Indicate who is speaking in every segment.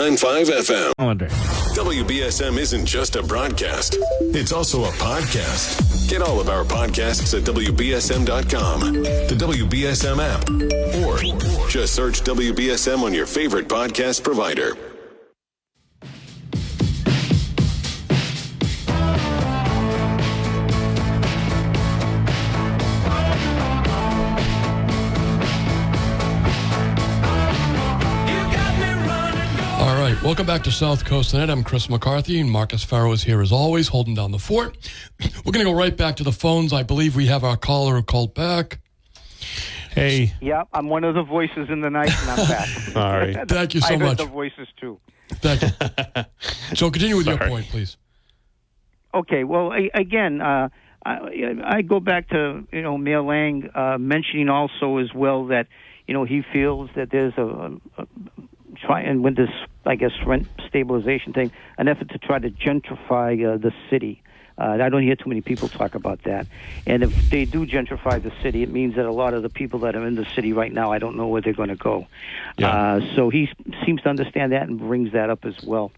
Speaker 1: 95 FM.
Speaker 2: calendar.
Speaker 1: WBSM isn't just a broadcast, it's also a podcast. Get all of our podcasts at WBSM.com, the WBSM app, or just search WBSM on your favorite podcast provider.
Speaker 3: All right, welcome back to South Coast Tonight. I'm Chris McCarthy, and Marcus Farrow is here as always, holding down the fort. We're going to go right back to the phones. I believe we have our caller who called back.
Speaker 2: Hey,
Speaker 4: Yeah, I'm one of the voices in the night, and I'm back.
Speaker 2: all right.
Speaker 3: Thank you
Speaker 4: I
Speaker 3: so
Speaker 4: heard
Speaker 3: much.
Speaker 4: the voices too.
Speaker 3: Thank you. so continue with your
Speaker 2: Sorry.
Speaker 3: point, please.
Speaker 4: Okay, well, I, again, uh, I, I go back to you know Mayor Lang uh, mentioning also as well that you know he feels that there's a, a, a try and with this I guess rent stabilization thing, an effort to try to gentrify uh, the city. Uh, I don't hear too many people talk about that. And if they do gentrify the city, it means that a lot of the people that are in the city right now, I don't know where they're going to go. Uh, so he s- seems to understand that and brings that up as well.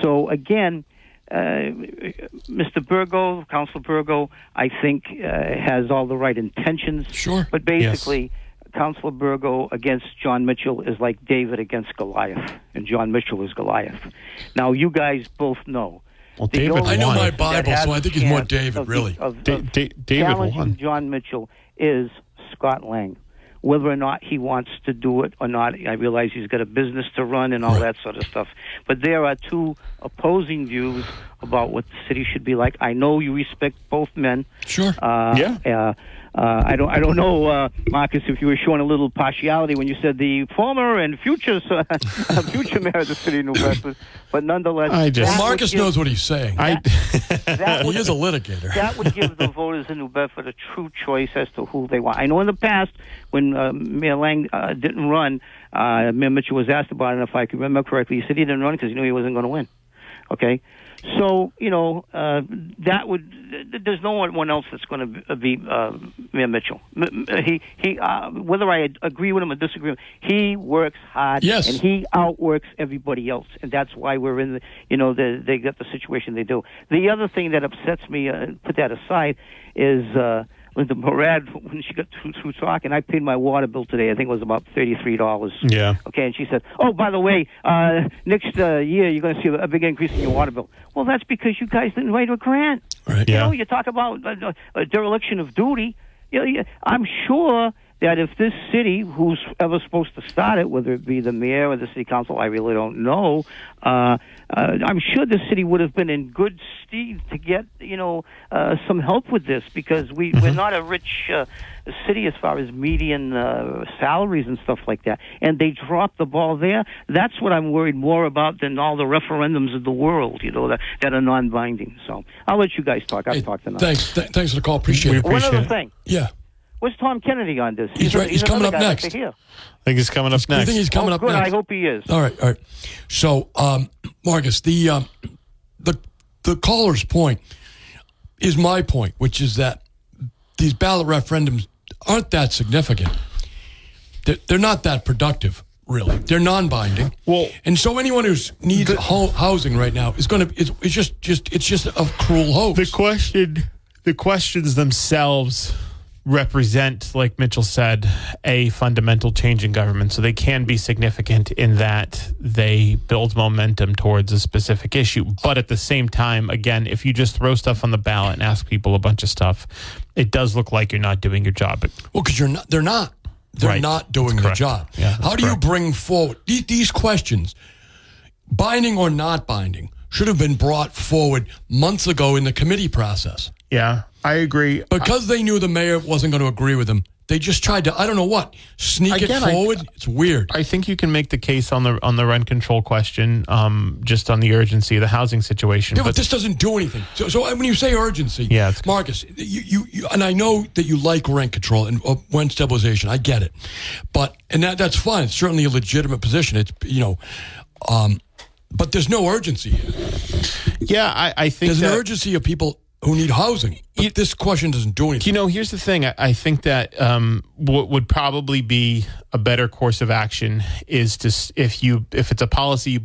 Speaker 4: So again, uh, Mr. Burgo, Council Burgo, I think uh, has all the right intentions.
Speaker 3: Sure.
Speaker 4: But basically, Council Burgo against John Mitchell is like David against Goliath, and John Mitchell is Goliath. Now you guys both know.
Speaker 2: Well,
Speaker 4: the
Speaker 2: David
Speaker 4: only
Speaker 2: I know
Speaker 4: one
Speaker 2: my
Speaker 4: that
Speaker 3: Bible,
Speaker 4: has
Speaker 3: so I
Speaker 4: a
Speaker 3: think he's more
Speaker 4: chance
Speaker 3: David,
Speaker 4: of the-
Speaker 3: really.
Speaker 4: of-
Speaker 2: Da-
Speaker 4: of
Speaker 2: Da- David
Speaker 4: challenging
Speaker 2: won.
Speaker 4: John Mitchell is Scott Lang. Whether or not he wants to do it or not, I realize he's got a business to run and all that sort of stuff. But there are two opposing views about what the city should be like. I know you respect both men.
Speaker 3: Sure.
Speaker 4: Uh,
Speaker 2: Yeah.
Speaker 4: Uh, uh, I don't. I don't know, uh, Marcus, if you were showing a little partiality when you said the former and future so, future mayor of the city of New Bedford, but nonetheless,
Speaker 2: I just-
Speaker 4: that
Speaker 3: well,
Speaker 4: would
Speaker 3: Marcus
Speaker 4: give-
Speaker 3: knows what he's saying.
Speaker 2: I
Speaker 4: that
Speaker 3: he
Speaker 4: would
Speaker 3: is a litigator.
Speaker 4: that would give the voters in New Bedford a true choice as to who they want. I know in the past, when uh, Mayor Lang uh, didn't run, uh, Mayor Mitchell was asked about it, and if I can remember correctly, he said he didn't run because he knew he wasn't going to win. Okay? So, you know, uh, that would, th- th- there's no one else that's going to be uh, Mayor Mitchell. M- m- He, he uh, whether I ad- agree with him or disagree with him, he works hard
Speaker 3: Yes.
Speaker 4: and he outworks everybody else, and that's why we're in the you know the, they got the situation they do. The other thing that upsets me, uh, put that aside, is uh, Linda Morad when she got through, through talking. I paid my water bill today. I think it was about thirty three dollars.
Speaker 2: yeah.
Speaker 4: Okay, and she said, "Oh, by the way, uh, next uh, year you're going to see a big increase in your water bill." Well, that's because you guys didn't write a grant.
Speaker 3: Right.
Speaker 4: You
Speaker 2: Yeah.
Speaker 4: know, you talk about uh, uh, dereliction of duty. You know, you- I'm sure that if this city, who's ever supposed to start it, whether it be the mayor or the city council, I really don't know. Uh, uh, I'm sure the city would have been in good stead to get you know uh, some help with this because we we're not a rich uh, city as far as median uh, salaries and stuff like that, and they dropped the ball there. That's what I'm worried more about than all the referendums of the world, you know, that, that are non-binding. So I'll let you guys talk. I've
Speaker 3: Hey,
Speaker 4: talked enough.
Speaker 3: thanks. Th- thanks for the call. Appreciate
Speaker 2: We
Speaker 3: it.
Speaker 4: One
Speaker 2: appreciate
Speaker 4: other
Speaker 2: it.
Speaker 4: thing.
Speaker 3: Yeah.
Speaker 4: Where's Tom Kennedy on this?
Speaker 3: He's right. He's coming
Speaker 4: another
Speaker 3: up
Speaker 4: guy
Speaker 3: next.
Speaker 4: I'd like to hear.
Speaker 2: I think he's coming up
Speaker 3: You
Speaker 2: next.
Speaker 3: think he's coming
Speaker 4: oh,
Speaker 3: up
Speaker 4: good.
Speaker 3: next?
Speaker 4: I hope he is.
Speaker 3: All right, all right. So, um, Marcus, the um, the the caller's point is my point, which is that these ballot referendums aren't that significant. They're, they're not that productive, really. They're non-binding.
Speaker 2: Well-
Speaker 3: and so anyone who needs ho- housing right now is going to it's, it's just just it's just a cruel hoax.
Speaker 2: the question the questions themselves represent like mitchell said a fundamental change in government so they can be significant in that they build momentum towards a specific issue but at the same time again if you just throw stuff on the ballot and ask people a bunch of stuff it does look like you're not doing your job
Speaker 3: Well, because you're not. They're not. They're
Speaker 2: Right.
Speaker 3: not doing their
Speaker 2: correct.
Speaker 3: job.
Speaker 2: Yeah, that's
Speaker 3: How do
Speaker 2: correct.
Speaker 3: you bring forward these, these questions, binding or not binding, should have been brought forward months ago in the committee process
Speaker 2: yeah i agree
Speaker 3: because they knew the mayor wasn't going to agree with them. They just tried to. I don't know what sneak
Speaker 2: Again,
Speaker 3: it
Speaker 2: I-
Speaker 3: forward. it's weird.
Speaker 2: I think you can make the case on the on the rent control question, um, just on the urgency of the housing situation.
Speaker 3: Yeah, but this doesn't do anything. So, so when you say urgency,
Speaker 2: Yeah, it's-
Speaker 3: Marcus, you, you, you and I know that you like rent control and uh, rent stabilization. I get it, but and that that's fine. It's certainly a legitimate position. It's you know, um, but there's no urgency here.
Speaker 2: yeah, I, I think
Speaker 3: There's an
Speaker 2: that-
Speaker 3: urgency of people who need housing. But this question doesn't do anything.
Speaker 2: You know, here's the thing. I, I think that um, what would probably be a better course of action is to s- if you if it's a policy you